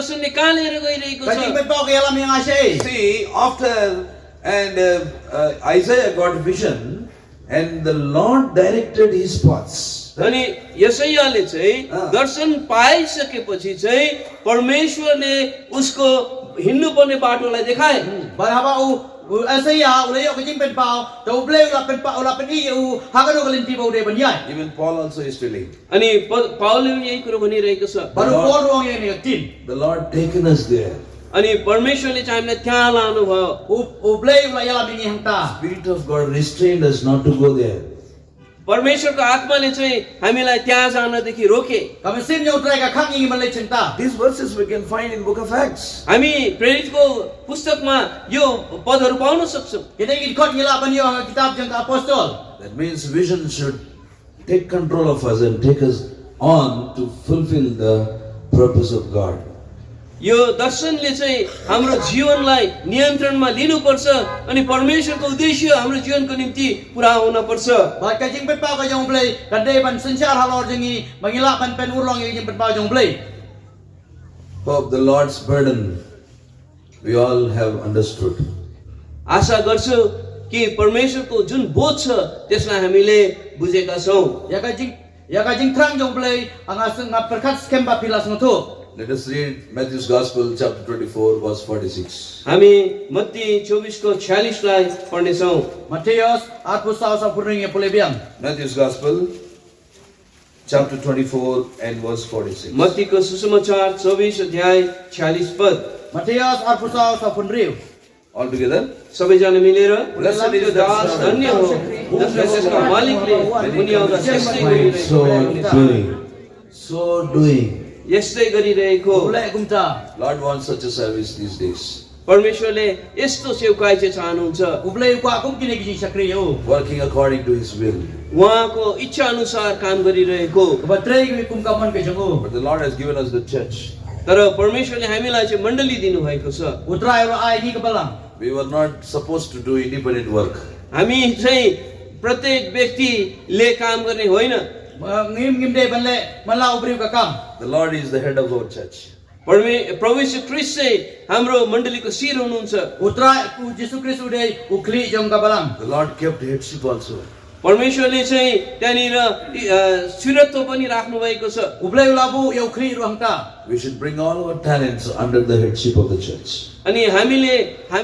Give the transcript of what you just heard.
कसो निकालेर गइरहेको Kasi छ may pakialam niya nga siya eh. See, after and uh, uh, Isaiah got vision, and the Lord directed his paths. अनि यसैयाले चाहिँ अँ। दर्शन पाइसकेपछि चाहिँ परमेश्वरले उसको हिँड्नुपर्ने बाटोलाई देखाए Baraba u u- asaya ulay ko jing pen pao, da ublay ula pen pao ula pen i u hakano galin ti bau de ban yai. Even Paul also is telling, अनि प- पावलले पनि यही कुरो भनिरहेको छ Baru ko ruang ye ni tin. the Lord taken us there. अनि परमेश्वरले चाहिँ हामीलाई त्यहाँ लानुभयो U- Ublay ula yala bingi hang ta. Spirit of God restrained us not to go there. परमेश्वरको आत्माले चाहिँ हामीलाई त्यहाँ जानदेखि रोके Kami sim nyo utray ka kang ingi man lay cheng ta. These verses we can find in Book of Acts. हामी प्रेरितको पुस्तकमा यो पदहरू पाउन सक्छौँ Kita ingin kot ngila ban yo hang kitab jang ka apostol. That means vision should take control of us and take us on to fulfill the purpose of God. यो दर्शनले चाहिँ हाम्रो जीवनलाई नियन्त्रणमा लिनुपर्छ अनि परमेश्वरको उद्देश्य हाम्रो जीवनको निम्ति पुरा हुनपर्छ Bat ka jing pen pao ka jang ublay, kan day ban sensyar halor jang i, mangila ban pen urlong ye jing pen pao jang ublay. Hope the Lord's burden we all have understood. आशा गर्छु कि परमेश्वरको जुन बोध छ त्यसलाई हामीले बुझेका छौँ Ya ka jing Ya ka jing trang jang ublay, ang aseng nga perkat skem ba pilas no tu. Let us read Matthew's Gospel, chapter 24, verse 46. हामी मत्ती चौबिसको छ्यालिसलाई पढ्नेछौँ Matius at pusaw sa puring ye pulay biang. Matthew's Gospel, chapter 24, and verse 46. मत्तीको सुसमाचार चौबिस अध्याय छ्यालिस पद Matias Arpusaw sa Punriu. Altogether, सबैजना मिलेर Blessed is the दास धन्य हो जसलाई त्यसका मालिकले उनी आउँदा त्यस्तै गरिरहेको so doing, so doing. यस्तै गरिरहेको Ulay kumta. Lord wants such a service these days. परमेश्वरले यस्तो सेवकाई चाहिँ चाहनुहुन्छ Ublay ko akong kinigisi sa kriyo. Working according to His will. उहाँको इच्छा अनुसार काम गरिरहेको Kabatray kami kumkaman kay Jango. But the Lord has given us the church. तर परमेश्वरले हामीलाई चाहिँ मण्डली दिनुभएको छ Utray ro ay ni kabalang. We were not supposed to do independent work. हामी चाहिँ प्रत्येक व्यक्तिले काम गर्ने होइन Ngim ngim day banle mala ubriu ka kam. The Lord is the head of our church. परमे प्रभु यीशु क्रिस्ट चाहिँ हाम्रो मण्डलीको शिर हुनुहुन्छ Utray ku Jesu Kristu day ukli jong kabalang. The Lord kept headship also. परमेश्वरले चाहिँ त्यहाँनिर अ, श्रीरत्व पनि राख्नु भएको छ Ublay ulabu ya ukli ruang ta. We should bring all our talents under the headship of the church. अनि हामीले हामी